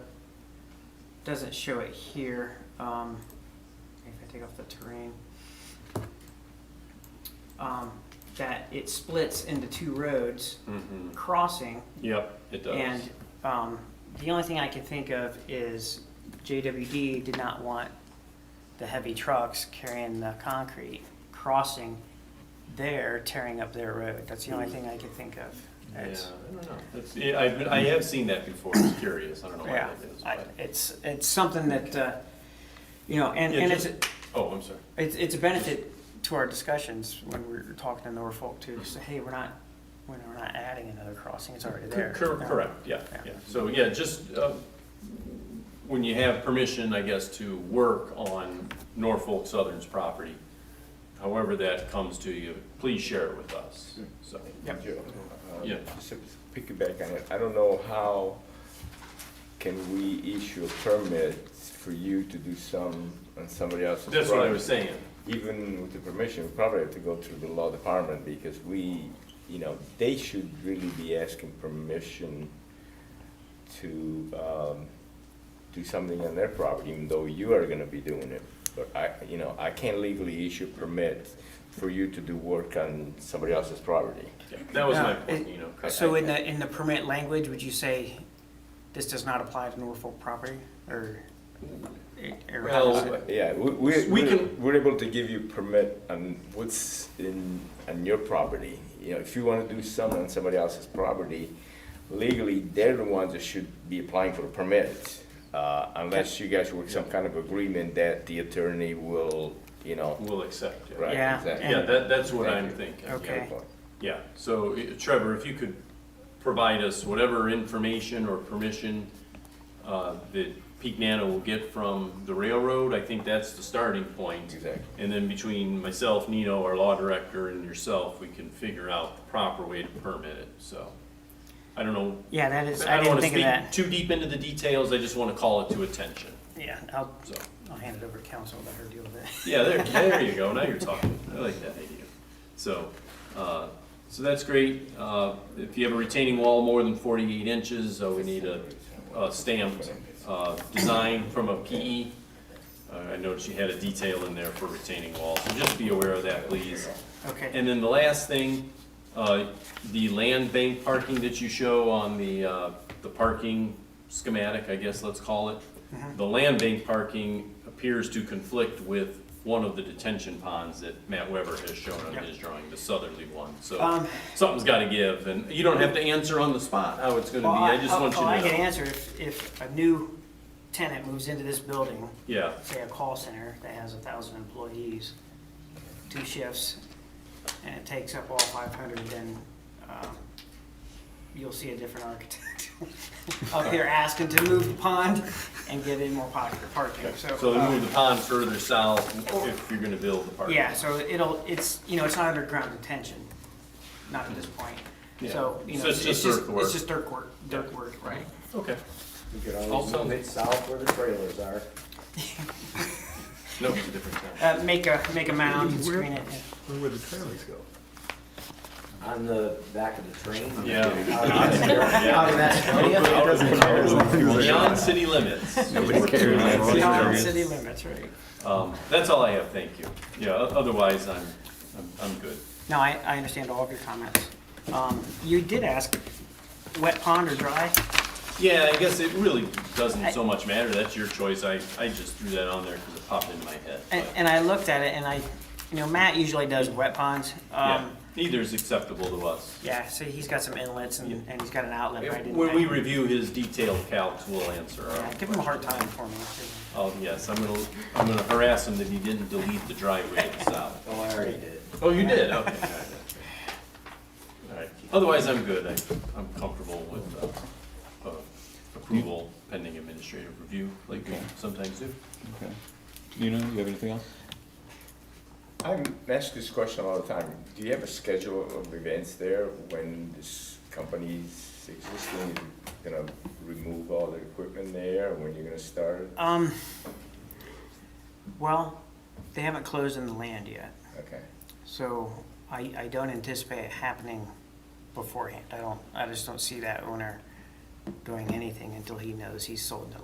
doesn't show it here, um, if I take off the terrain. Um, that it splits into two roads Mm-hmm. crossing Yep, it does. and, um, the only thing I can think of is JWD did not want the heavy trucks carrying the concrete crossing there, tearing up their road. That's the only thing I can think of. Hmm. yeah, I It's- don't know. That's, yeah, I've been, I have seen that before. It's curious. I don't know why Yeah, that is. I- But, it's, it's something that, uh, you know, and, Yeah, and it's, just- oh, I'm sorry. it's, it's a benefit to our discussions when we're talking to Norfolk too, to say, hey, we're not, we're not adding another crossing, it's already there. Cor- cor- Correct, yeah, Yeah. yeah. So, yeah, just uh, when you have permission, I guess, to work on Norfolk Southern's property, however that comes to you, please share it with us, so. Yep. Joe, uh, Yeah. just to Piggyback on it, I don't know how can we issue a permit for you to do some on somebody else's property? That's what I was saying. Even with the permission, we probably have to go through the law department because we, you know, they should really be asking permission to, um, do something on their property, even though you are gonna be doing it. But I, you know, I can't legally issue permit for you to do work on somebody else's property. Yeah, That was my Yeah, point, it- you know. So in the, in the permit language, would you say this does not apply to Norfolk property or? or how does Well, it- Yeah, we, We we, we're- can- we're able to give you permit on what's in, on your property. You know, if you wanna do something on somebody else's property, legally, they're the ones that should be applying for the permit. Uh, unless you guys work some kind of agreement that the attorney will, you know, we'll accept, yeah. right, Yeah, exactly. Yeah, that, that's what I'm Thank you. thinking. yeah. Okay. Yeah, so eh, Trevor, if you could provide us whatever information or permission uh, that Peak Nano will get from the railroad, I think that's the starting point. Exactly. And then between myself, Nino, our law director, and yourself, we can figure out the proper way to permit it, so. I don't know, Yeah, that is, I I don't didn't want to think of speak that. too deep into the details, I just want to call it to attention, Yeah, I'll, so. I'll hand it over to council, let her deal with it. Yeah, there, there you go. Now you're talking. I like that idea. So, uh, so that's great. Uh, if you have a retaining wall more than forty-eight inches, uh, we need a, a stamped, uh, design from a PE. Uh, I noticed you had a detail in there for retaining wall, so just be aware of that, please. Okay, And then the last thing, uh, the land bank parking that you show on the, uh, the parking schematic, I guess let's call it. Mm-hmm. The land bank parking appears to conflict with one of the detention ponds that Matt Weber has shown on Yep. his drawing, the southerly one. So um, something's gotta give, and you don't have to answer on the spot how it's gonna be, well, I just want Well, I you can to know. answer if, if a new tenant moves into this building, Yeah, say a call center that has a thousand employees, two shifts, and it takes up all five hundred, then, um, you'll see a different architect up here asking to move the pond and get in more pocket parking, so. so uh, move the pond further south if you're gonna build the parking. Yeah, so it'll, it's, you know, it's not underground detention, not at this point. Yeah. So, you So know, it's it's just just, dirt work. it's just dirt work, dirt work, right? Okay, You could Also- always move it south where the trailers are. no, it's a different time. Uh, make a, make a mound and screen it. Where would the trailers go? On the back of the train. Uh, Yeah. Out of- Yeah. out of Macedonia. Out of- Beyond Beyond city limits. Nobody cares. yeah. Beyond Yes. city limits, right? Um, that's all I have, thank you. Yeah, o- otherwise, I'm, I'm, I'm good. No, I, I understand all of your comments. Um, you did ask, wet pond or dry? Yeah, I guess it really doesn't so much matter, that's your choice, I, I just threw that on there because it popped into my head. And, but, and I looked at it and I, you know, Matt usually does wet ponds. Yeah, Um, neither is acceptable to us. yeah, so he's got some inlets and, and he's got an outlet. but I didn't- When we I- review his detailed calcs, we'll answer our yeah, own Give him a hard questions. time for me. too. Oh, yes, I'm gonna, I'm gonna harass him that he didn't delete the driveway itself. Oh, I already did. Oh, you did, okay. all right, that's right. All right, otherwise, I'm good, I, I'm comfortable with, uh, uh, approval pending administrative review, like we sometimes do. Okay. You know, you have anything else? I'm asked this question all the time. Do you have a schedule of events there when this company's existing, you're gonna remove all the equipment there, when you're gonna start? it? Um, well, they haven't closed on the land yet, Okay. so I, I don't anticipate it happening beforehand. I don't, I just don't see that owner doing anything until he knows he's sold the